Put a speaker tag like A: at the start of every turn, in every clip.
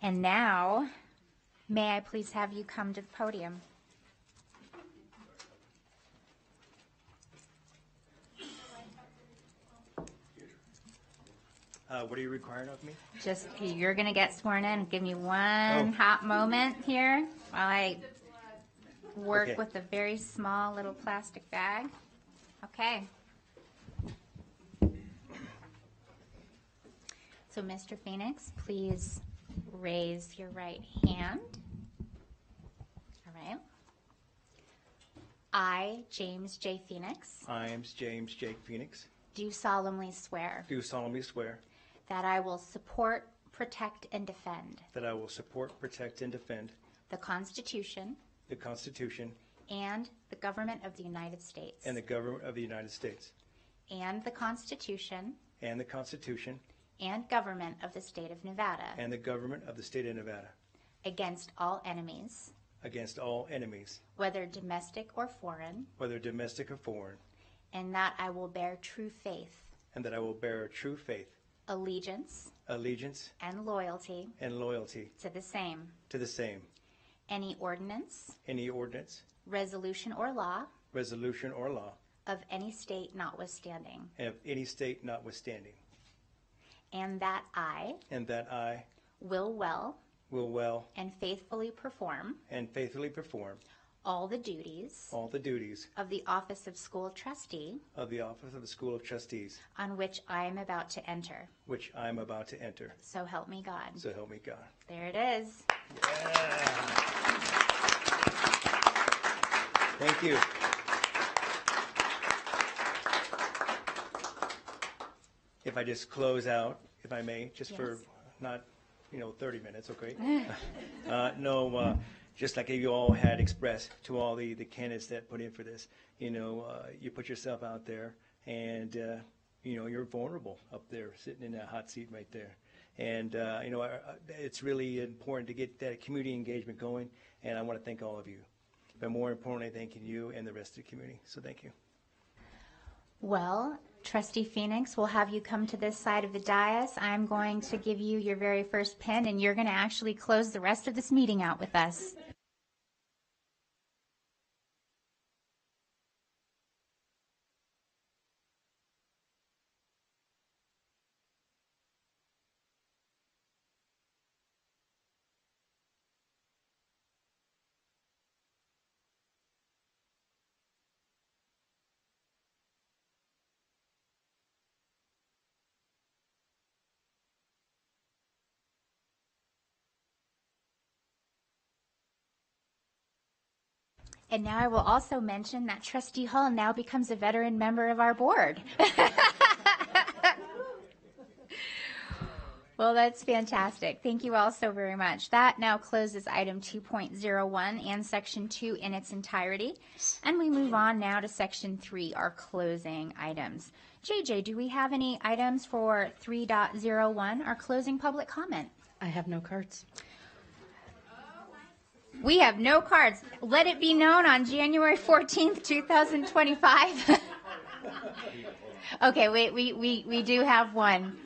A: And now, may I please have you come to the podium?
B: Uh, what are you requiring of me?
A: Just, you're gonna get sworn in. Give me one hot moment here while I
B: Okay.
A: work with a very small little plastic bag. Okay. So, Mr. Phoenix, please raise your right hand. All right. I, James J. Phoenix,
B: I am James Jake Phoenix.
A: do solemnly swear
B: Do solemnly swear
A: that I will support, protect, and defend
B: that I will support, protect, and defend
A: the Constitution
B: the Constitution
A: and the government of the United States
B: and the government of the United States
A: and the Constitution
B: and the Constitution
A: and government of the state of Nevada
B: and the government of the state of Nevada
A: against all enemies,
B: against all enemies,
A: whether domestic or foreign,
B: whether domestic or foreign,
A: and that I will bear true faith,
B: and that I will bear true faith,
A: allegiance,
B: allegiance,
A: and loyalty
B: and loyalty
A: to the same,
B: to the same,
A: any ordinance,
B: any ordinance,
A: resolution, or law
B: resolution, or law,
A: of any state notwithstanding,
B: and of any state notwithstanding,
A: and that I
B: and that I
A: will well
B: will well
A: and faithfully perform
B: and faithfully perform
A: all the duties
B: all the duties
A: of the office of school trustee
B: of the office of the School of Trustees
A: on which I am about to enter.
B: which I am about to enter.
A: So help me God.
B: So help me God.
A: There it is.
B: Thank you. If I just close out, if I may, just for
A: Yes.
B: not, you know, 30 minutes, okay? Uh, No, uh, just like you all had expressed to all the the candidates that put in for this, you know, uh, you put yourself out there and, uh, you know, you're vulnerable up there, sitting in that hot seat right there. And, uh, you know, I- I- it's really important to get that community engagement going, and I want to thank all of you. But more importantly, thanking you and the rest of the community. So thank you.
A: Well, Trustee Phoenix, we'll have you come to this side of the dais. I'm going to give you your very first pin, and you're going to actually close the rest of this meeting out with us. And now I will also mention that Trustee Hull now becomes a veteran member of our board. Well, that's fantastic. Thank you all so very much. That now closes item 2.01 and section 2 in its entirety. And we move on now to section 3, our closing items. JJ, do we have any items for 3.01, our closing public comment?
C: I have no cards.
A: We have no cards. Let it be known on January 14th, 2025. okay, wait, we, we, we do have one.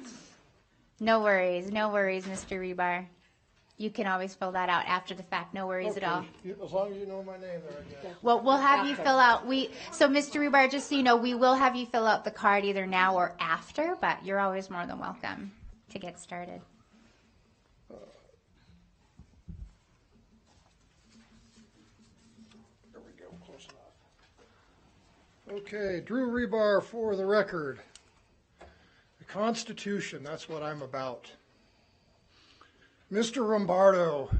A: No worries, no worries, Mr. Rebar. You can always fill that out after the fact. No worries at all.
D: You- As long as you know my name, there, I guess.
A: Well, we'll have you fill out. We so, Mr. Rebar, just so you know, we will have you fill out the card either now or after. But you're always more than welcome to get started.
D: There we go, close enough. Okay, Drew Rebar for the record. The Constitution, that's what I'm about. Mr. Rombardo,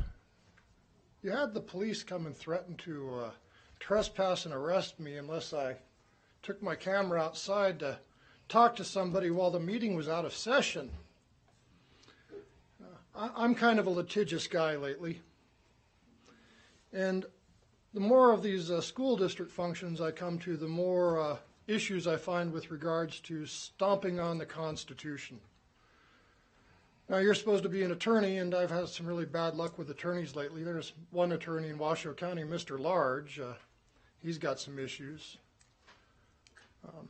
D: you had the police come and threaten to uh, trespass and arrest me unless I took my camera outside to talk to somebody while the meeting was out of session. Uh, I- I'm kind of a litigious guy lately. And the more of these uh, school district functions I come to, the more uh, issues I find with regards to stomping on the Constitution. Now, you're supposed to be an attorney, and I've had some really bad luck with attorneys lately. There's one attorney in Washoe County, Mr. Large. Uh, he's got some issues. Um,